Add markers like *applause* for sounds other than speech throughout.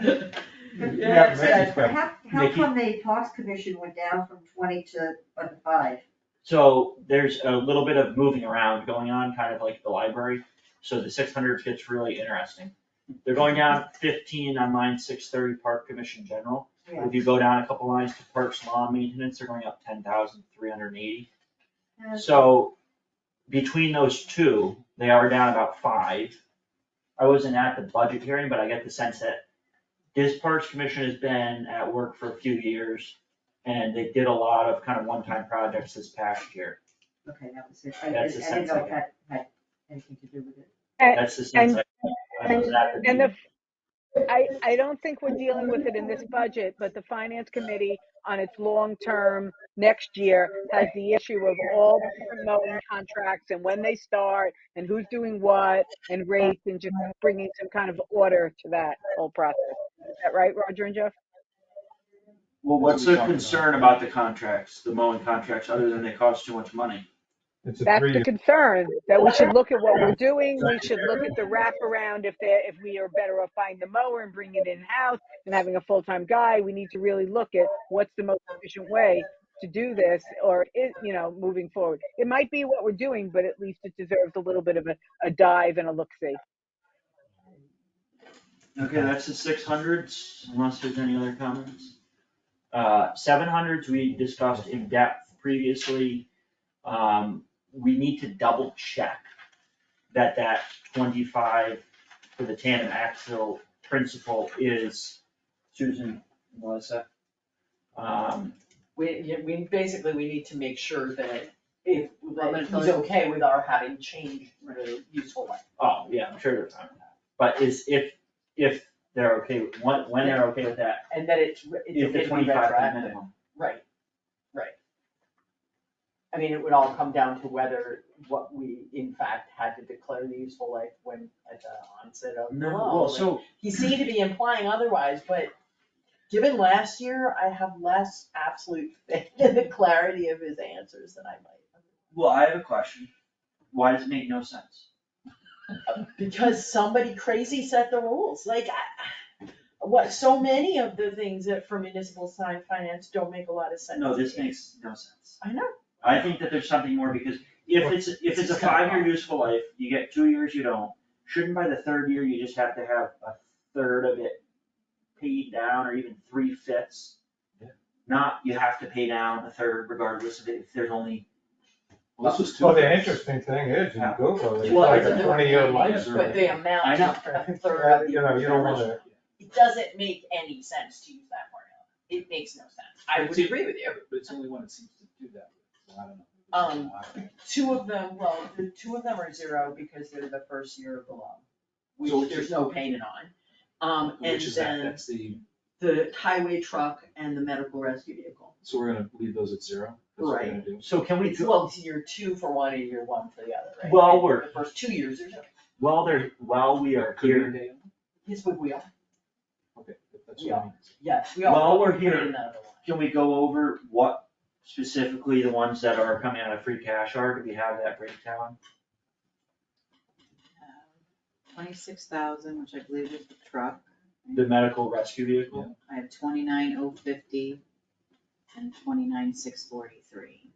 Yeah, Yes, Reggie's yes. problem. How, how Nikki. come the Parks Commission went down from twenty to uh, five? So there's a little bit of moving around going on, kind of like the library, so the six hundred gets really interesting. They're going down fifteen on line six thirty, Park Commission General. Yeah. If you go down a couple lines to Parks Law Maintenance, they're going up ten thousand three hundred and eighty. So between those two, they are down about five. I wasn't at the budget hearing, but I get the sense that this Parks Commission has been at work for a few years. And they did a lot of kind of one-time projects this past year. Okay, that was it. I, I I That's the didn't sense know I if that had anything to do with it. That's the sense I, I was at the And meeting. the, I, I don't think we're dealing with it in this budget, but the finance committee on its long-term next year has the issue of all the promoting contracts and when they start and who's doing what and rates and just bringing some kind of order to that whole process. Is that right, Roger and Jeff? Well, what's What are we talking the about? concern about the contracts, the mowing contracts, other than they cost too much money? It's a That's the three, concern, that we should look at what we're doing, we should look at the wraparound, if they, if we are better off buying the mower and bringing it in-house and having a full-time guy, we need to really look at what's the most efficient way to do this, or is, you know, moving forward. It might be what we're doing, but at least it deserves a little bit of a, a dive and a look-see. Okay, that's the six hundreds, unless there's any other comments. Uh, seven hundreds, we discussed in depth previously. Um, we need to double check that that twenty-five for the tandem axle principle is Susan, Melissa. Um, We, yeah, we, basically, we need to make sure that if, Well, that there's he's no- okay with our having changed the useful one. oh, yeah, I'm sure they're fine with that. But is, if, if they're okay, with- when, when they're okay with that, And that it's, if it's the okay to be twenty-five is retroactive. minimum. Right, right. I mean, it would all come down to whether what we in fact had to declare the useful life when, at the onset of the No, law. well, so He seemed to be implying otherwise, but given last year, I have less absolute *laughs* faith in the clarity of his answers than I might. Well, I have a question. Why does it make no sense? Because somebody crazy set the rules, like, I, what, so many of the things that for municipal sign finance don't make a lot of sense. No, this to me. makes no sense. I know, I think that there's something more because if it's, if it's a five-year useful life, you get two years, you don't. Shouldn't by the third year, you just have to have a third of it paid down or even three fifths? Yeah. Not, you have to pay down a third regardless of it, if there's only, Well, this was two. well, the years. interesting thing is, you Google, it, it's Well, like it's a a- twenty-year Yes, life. sir. but the amount I know. is for a third of the. *laughs* You know, you don't wanna, It doesn't make any sense to use that formula. It makes no sense. I would It's- agree with you. But it's the only one that seems to do that, so I don't know. Um, I don't know. Two of them, well, the two of them are zero because they're the first year of the loan, So which it's- there's no payment on. Um, and Which is that, then that's the, the highway truck and the medical rescue vehicle. so we're gonna leave those at zero, that's what we're gonna do. so can we, It's well, it's year two for one and year one for the other, right? Well, And we're- The first two years are zero. while there, while we are Could be a here, day, Yes, but we are, okay, if that's what I mean. yes, we are. While we're Put here- in another one. can we go over what specifically the ones that are coming out of free cash are? Do we have that breakdown? Uh, Twenty-six thousand, which I believe is the truck, the medical rescue vehicle. I have twenty-nine oh fifty and twenty-nine six forty-three.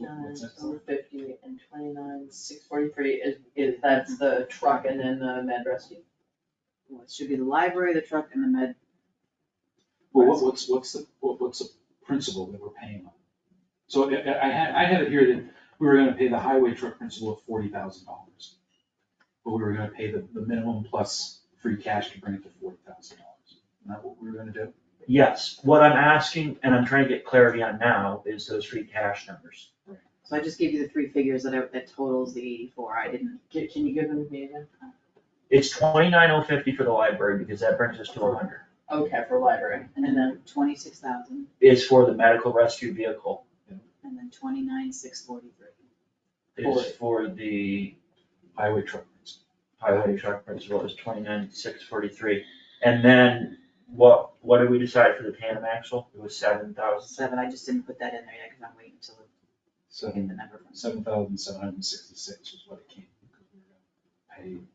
Nine, What's that? over oh fifty and twenty-nine, six forty-three is, is, that's the truck and then the med rescue. Well, it should be the library, the truck, and the med, Well, what, what's, what's the, what, what's the principal that we're paying on? So I, I I had, I had it here that we were gonna pay the highway truck principal of forty thousand dollars. But we were gonna pay the, the minimum plus free cash to bring it to forty thousand dollars. Isn't that what we were gonna do? Yes, what I'm asking, and I'm trying to get clarity on now, is those free cash numbers. so I just gave you the three figures that I, that totals the eighty-four, I didn't, Uh, Can, can you give them to me again? It's twenty-nine oh fifty for the library, because that brings us to hundred. Okay, for library, and then twenty-six thousand, Is for the medical rescue vehicle, and then twenty-nine six forty-three. is for the Highway truck principal. highway truck principal is twenty-nine six forty-three. And then what, what did we decide for the tandem axle? It was seven thousand. Seven, I just didn't put that in there yet, cause I'm waiting till I So get the number from. seven thousand seven hundred and sixty-six was what it came. because we were gonna